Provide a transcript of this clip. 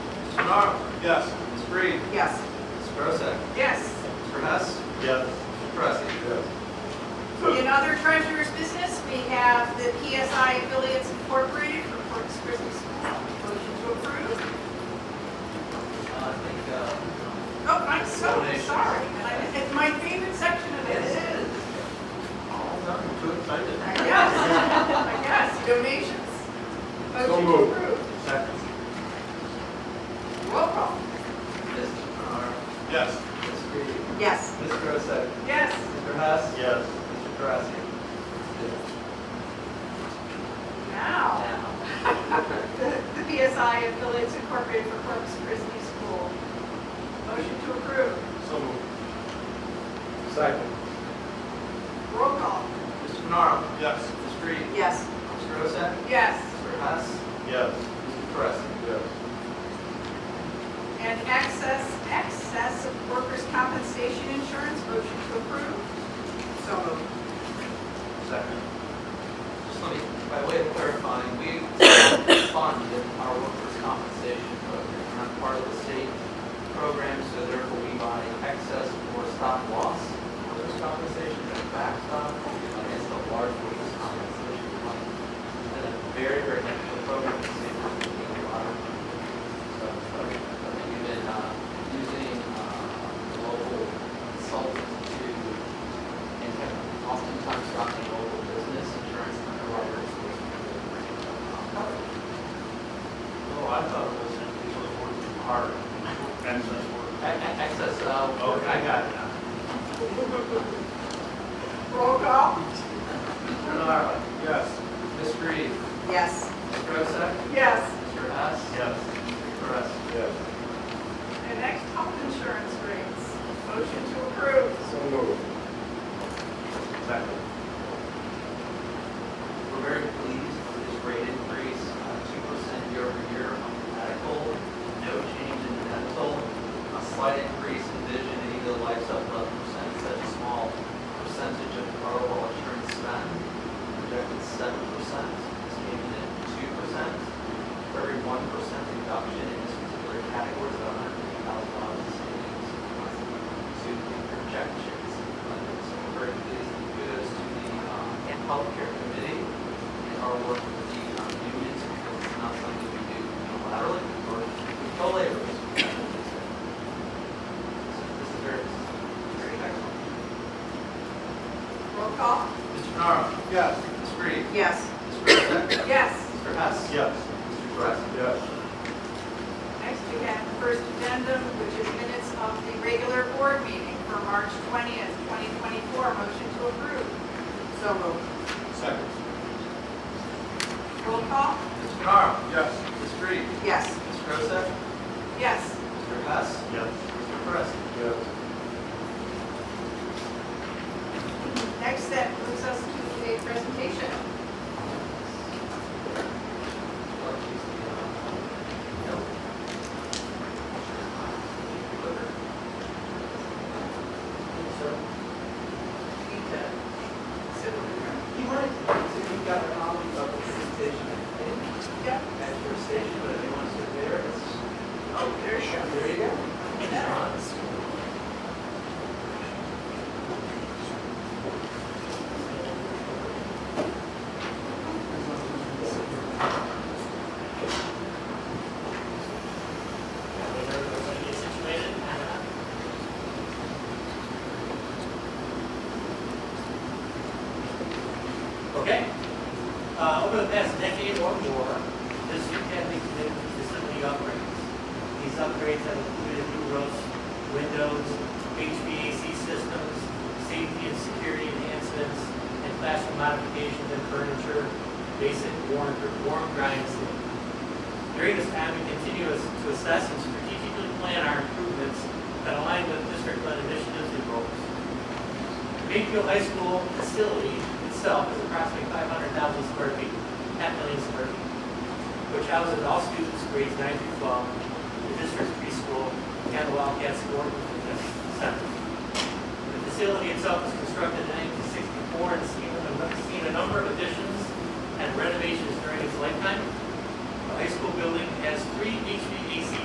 Arnold. Yes. Ms. Freed. Yes. Ms. Grossack. Yes. Mr. Hess. Yes. Mr. Pressley. In other treasurer's business, we have the PSI Affiliates Incorporated for Corpus Christi School. Motion to approve. I think, uh, Oh, I'm so sorry. And I- It's my favorite section of it it. is. All done, too excited. I guess, I guess, donations. Motion to moved. approve. Second. Roll call. Ms. Arnold. Yes. Ms. Freed. Yes. Ms. Grossack. Yes. Mr. Hess. Yes. Mr. Pressley. Now, the PSI Affiliates Incorporated for Corpus Christi School. Motion to approve. So moved. Second. Roll call. Mr. Arnold. Yes. Ms. Freed. Yes. Ms. Grossack. Yes. Mr. Hess. Yes. Mr. Pressley. Yes. And excess, excess of workers' compensation insurance, motion to approve. So moved. Second. Just let me, by way of clarifying, we fund our workers' compensation program, we're not part of the state program, so therefore we buy excess or stop loss workers' compensation, and backstop against the large workers' compensation fund. And a very, very difficult program to save a lot of money. So, sorry, I think we've been uh, using uh, local consultants to and have oftentimes gotten local business insurance underwriters. Oh, I thought it was usually working hard. And such work. Excess, uh. Oh, Okay, I got it now. Roll call? Mr. Narva, Yes. Ms. Reed, Yes. Ms. Rosa, Yes. Mr. Hess, Yes. Mr. Perez. Yes. And next, health insurance rates, motion to approve. So moved. Second. We're very pleased with this rate increase, uh, two percent year over year on the medical, no change in dental, a slight increase in vision, and even though life's up eleven percent, such a small percentage of our overall insurance spend. Projected seven percent, this came in at two percent. For every one percent reduction in this particular category is about hundred fifty thousand dollars in savings. To the projections, Uh, so we're very pleased to do this to the uh, healthcare committee and our work with the um, unions, because it's not something we do unilaterally, or with co-laborers. So This is very, very excellent. Roll call? Mr. Nara, Yes. Ms. Reed, Yes. Ms. Grossack, Yes. Mr. Hess, Yes. Mr. Perez. Yes. Next, we have the first addendum, which is minutes of the regular board meeting for March 20th, 2024, motion to approve. So moved. Second. Roll call? Mr. Nara, Yes. Ms. Reed, Yes. Ms. Grossack, Yes. Mr. Hess, Yes. Mr. Perez. Yes. Next, that moves us to the presentation. You wanted, so you got a copy of the presentation, I think, Yep. at your station, but if you want to sit there, it's, Oh, there you go. there you go. It's on. Okay. Uh, over the past decade or more, this academy committed to facility upgrades. These upgrades have included new roofs, windows, HVAC systems, safety and security enhancements, and classroom modifications and furniture, basic warm, warm drying sleep. During this time, we continue as- to assess and strategically plan our improvements that align with district-led initiatives and goals. Greenfield High School facility itself is approximately 500,000 square feet, half million square feet, which houses all students grades 9 through 12, the district's preschool, and the Wildcat Sport Center. The facility itself is constructed in